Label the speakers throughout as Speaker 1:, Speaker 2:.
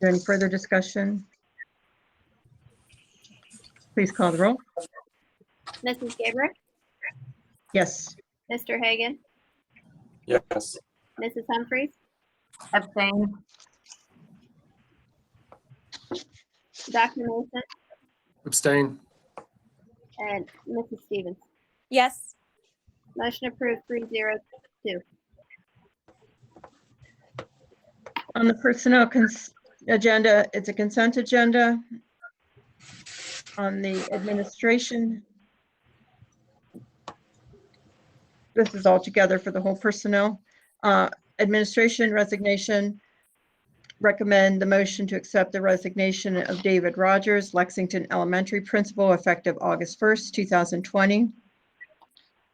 Speaker 1: there any further discussion? Please call the roll.
Speaker 2: Mrs. Gabriel,
Speaker 1: Yes,
Speaker 2: Mr. Hagan,
Speaker 3: Yes.
Speaker 2: Mrs. Humphries,
Speaker 4: abstain,
Speaker 2: Dr. Mason,
Speaker 5: abstain,
Speaker 2: and Mrs. Stevens.
Speaker 6: yes,
Speaker 2: Motion approved three zero.
Speaker 1: on the personnel cons- agenda, it's a consent agenda. On the administration. This is all together for the whole personnel. Uh, Administration resignation. Recommend the motion to accept the resignation of David Rogers, Lexington Elementary Principal, effective August 1st, 2020.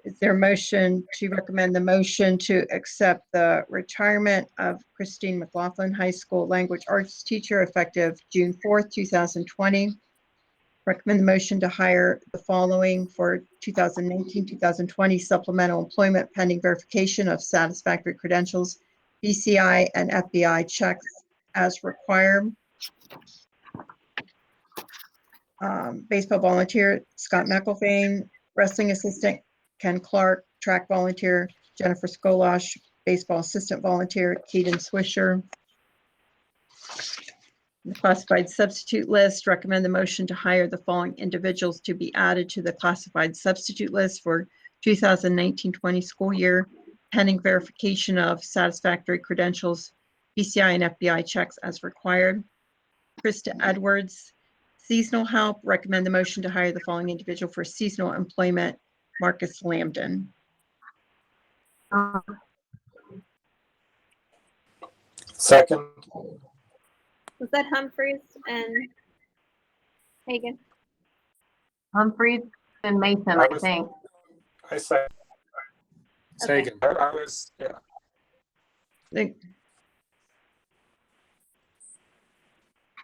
Speaker 1: Is there a motion to recommend the motion to accept the retirement of Christine McLaughlin, high school language arts teacher, effective June 4th, 2020? Recommend the motion to hire the following for 2019, 2020 supplemental employment pending verification of satisfactory credentials, BCI and FBI checks as required. Um, Baseball volunteer Scott McElvain, wrestling assistant Ken Clark, track volunteer, Jennifer Skolosh, baseball assistant volunteer, Keaton Swisher. The classified substitute list, recommend the motion to hire the following individuals to be added to the classified substitute list for 2019-20 school year, pending verification of satisfactory credentials, BCI and FBI checks as required. Krista Edwards, seasonal help, recommend the motion to hire the following individual for seasonal employment, Marcus Lambden.
Speaker 4: um,
Speaker 3: Second.
Speaker 2: Was that Humphries and Hagan?
Speaker 4: Humphries and Mason, I think.
Speaker 3: I second.
Speaker 2: Okay.
Speaker 5: Hagan,
Speaker 3: I I was, yeah,
Speaker 1: Like-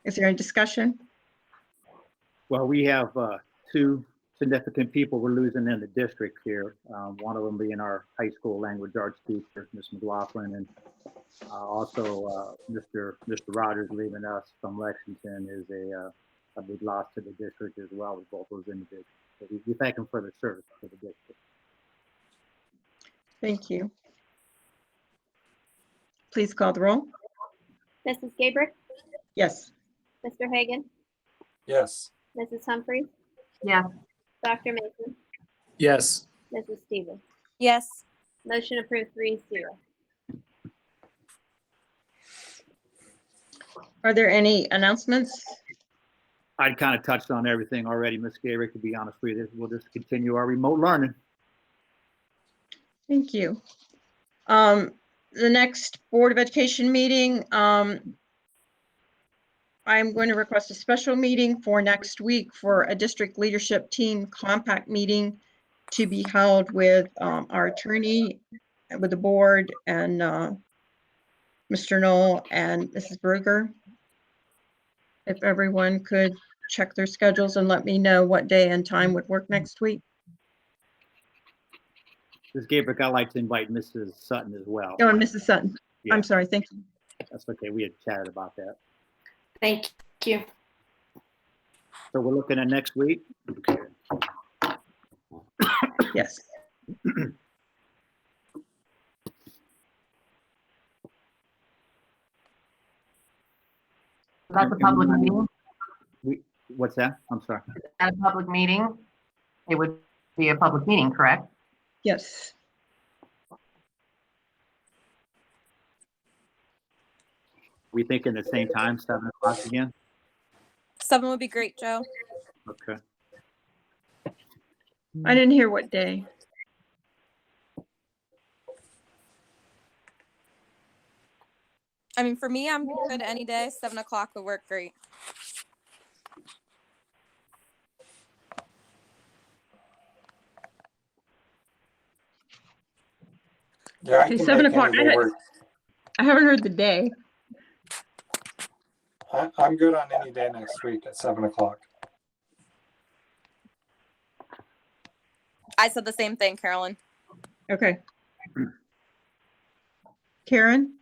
Speaker 1: Is there any discussion?
Speaker 7: Well, we have uh, two significant people we're losing in the district here. Um, One of them being our high school language arts teacher, Ms. McLaughlin, and uh, also uh, Mr. Mr. Rogers leaving us from Lexington is a, uh, a big loss to the district as well with both those individuals. So we- We thank them for their service to the district.
Speaker 1: Thank you. Please call the roll.
Speaker 2: Mrs. Gabriel,
Speaker 1: Yes,
Speaker 2: Mr. Hagan,
Speaker 3: yes.
Speaker 2: Mrs. Humphries,
Speaker 4: Yes,
Speaker 2: Dr. Mason,
Speaker 5: yes,
Speaker 2: Mrs. Stevens.
Speaker 6: yes,
Speaker 2: Motion approved three zero.
Speaker 1: are there any announcements?
Speaker 7: I'd kind of touched on everything already, Ms. Gabrick, to be honest with you. We'll just continue our remote learning.
Speaker 1: Thank you. Um, the next Board of Education meeting, um, I'm going to request a special meeting for next week for a district leadership team compact meeting to be held with, um, our attorney, and with the board and, uh, Mr. Knoll and Mrs. Berger. If everyone could check their schedules and let me know what day and time would work next week.
Speaker 7: Ms. Gabrick, I'd like to invite Mrs. Sutton as well.
Speaker 1: Oh, and Mrs. Sutton.
Speaker 7: Yeah.
Speaker 1: I'm sorry, thank you.
Speaker 7: That's okay. We had chatted about that.
Speaker 8: Thank you.
Speaker 7: So we're looking at next week. Okay.
Speaker 1: Yes.
Speaker 4: that's a public meeting.
Speaker 7: What's that? I'm sorry.
Speaker 4: At a public meeting, it would be a public meeting, correct?
Speaker 1: Yes.
Speaker 7: We thinking the same time, seven o'clock again?
Speaker 6: seven would be great, Joe.
Speaker 7: Okay.
Speaker 1: I didn't hear what day.
Speaker 6: I mean, for me, I'm good any day. Seven o'clock would work great.
Speaker 3: Yeah, I
Speaker 1: Okay,
Speaker 3: can
Speaker 1: seven
Speaker 3: make
Speaker 1: o'clock.
Speaker 3: anything
Speaker 1: I had-
Speaker 3: work.
Speaker 1: I haven't heard the day.
Speaker 3: I, I'm good on any day next week at seven o'clock.
Speaker 6: I said the same thing, Carolyn.
Speaker 1: Okay. Karen?